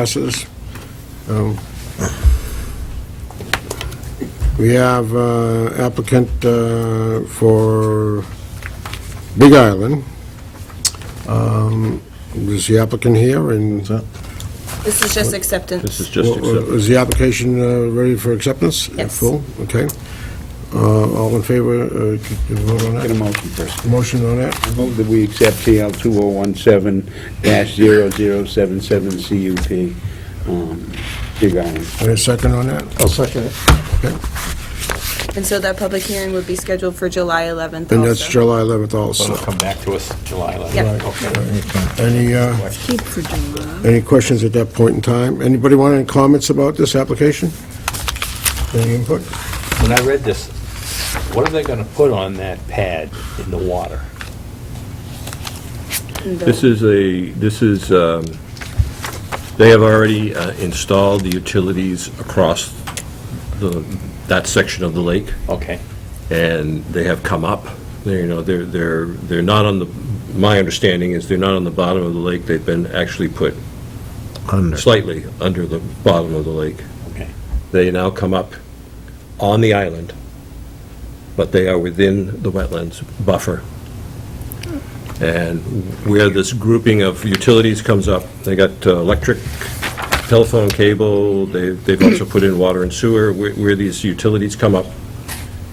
Passes. Um, We have uh, applicant uh, for Big Island. Um, Is the applicant here and This is just acceptance. This is just Well, accepted. Is the application uh, ready for acceptance? in Yes. Full, okay. Uh, All in favor, uh, c- can you vote on Get a that? motion first. Motion on that? I move that we accept PL 2017-0077 CUP, um, Big Island. And a second on that? I'll second it. And so that public hearing would be scheduled for July 11th And that's also. July 11th So also. it'll come back to us July 11th. Yeah. Okay. Any, uh, Keep for July. any questions at that point in time? Anybody want any comments about this application? Any input? When I read this, what are they going to put on that pad in the water? And the- This is a, this is, um, they have already uh, installed the utilities across the, that section of the lake, Okay, and they have come up. They, you know, they're, they're, they're not on the, my understanding is they're not on the bottom of the lake. They've been actually put slightly under the bottom of the lake. okay. They now come up on the island, but they are within the wetlands buffer. And where this grouping of utilities comes up, they got uh, electric, telephone cable, they- they've also put in water and sewer. Where- Where these utilities come up,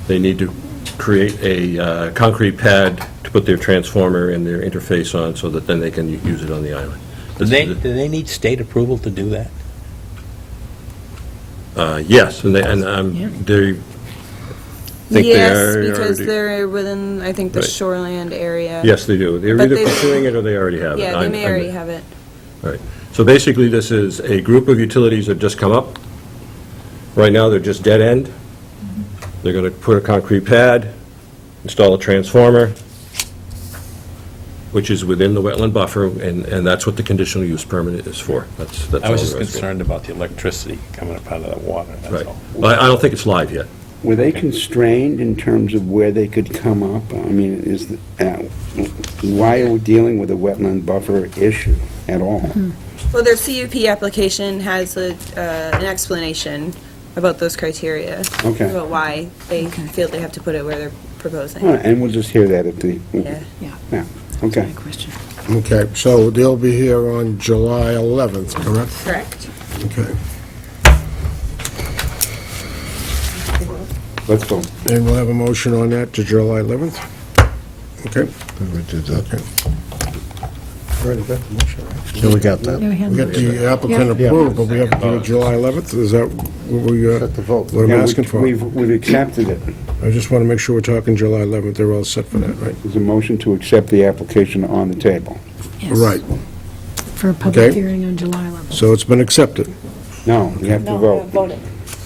they need to create a uh, concrete pad to put their transformer and their interface on so that then they can u- use it on the island. Do This they, is- do they need state approval to do that? Uh, Yes, and they, and um, they think they Yes, are. because already- they're within, I think, the Right. shoreland area. Yes, they do. They're But either they- pursuing it or they already have it. Yeah, they I'm- may I'm- already have it. Right. So basically, this is a group of utilities that just come up. Right now, they're just dead end. They're going to put a concrete pad, install a transformer, which is within the wetland buffer, and, and that's what the conditional use permit is for. That's, that's I was all just there is for it. concerned about the electricity coming up out of the water, that's Right. all. Well, I I don't think it's live yet. Were they constrained in terms of where they could come up? I mean, is, the- uh, why are we dealing with a wetland buffer issue at all? Well, their CUP application has a, uh, an explanation about those criteria. Okay. About why they Okay. feel they have to put it where they're proposing. All right, And we'll just hear that at the, Yeah. yeah, That's okay. my question. Okay, so they'll be here on July 11th, correct? Correct. Okay. Let's go. And we'll have a motion on that to July 11th? Okay. We did that. Already got the motion, right? So we got that. Yeah, we had We got the applicant Yeah. approved, but we have to do it July 11th? Is that what we, uh, Set the vote. what I'm Yeah, we- asking for? We've, we've accepted it. I just want to make sure we're talking July 11th. They're all set for that, right? There's a motion to accept the application on the table. Yes. Right. For a public Okay. hearing on July 11th. So it's been accepted. No, we have to vote.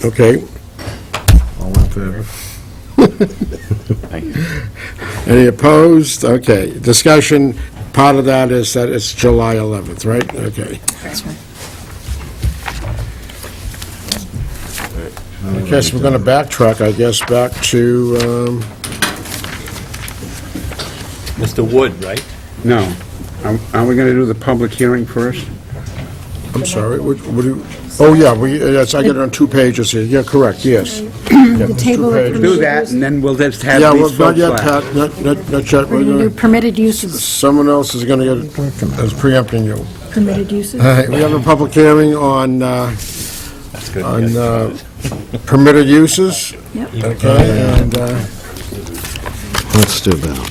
Okay. All in favor? Any opposed? Okay. Discussion, part of that is that it's July 11th, right? Okay. That's right. I guess we're going to backtrack, I guess, back to, um, Mr. Wood, right? No. Are- Are we going to do the public hearing first? I'm sorry, what what do, you- oh, yeah, we, yes, I get it on two pages here. Yeah, correct, yes. The table of pages. Do permitted that, uses. and then we'll just have Yeah, well, these not folks yet, last. Pat, not, not not yet. We're We're going to do gonna- permitted uses, Someone else is going to get, is preempting you. permitted uses. All right, we have a public hearing on, uh, That's good. on yes. uh, permitted uses, Yep. okay, and, uh, Let's do that.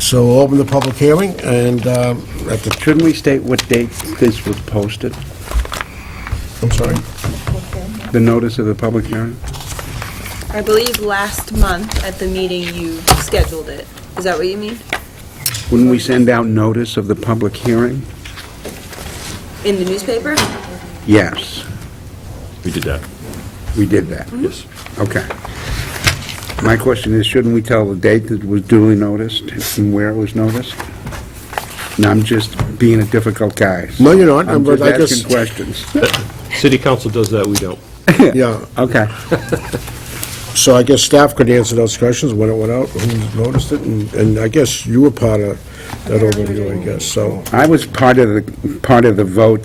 so we'll open the public hearing, and, um, at the, Shouldn't we state what date this was posted, I'm sorry, the notice of the public hearing? I believe last month at the meeting you scheduled it. Is that what you mean? Wouldn't we send out notice of the public hearing? In the newspaper? Yes, We did that, Mm-hmm. we did that. yes. Okay. My question is, shouldn't we tell the date that was duly noticed and where it was noticed? No, I'm just being a difficult guy. No, you're not, I'm but just I just- asking questions. City council does that, we don't. yeah, Okay. So I guess staff could answer those questions, when it went out, who noticed it, and, and I guess you were part of that overview, I guess, so. I was part of the, part of the vote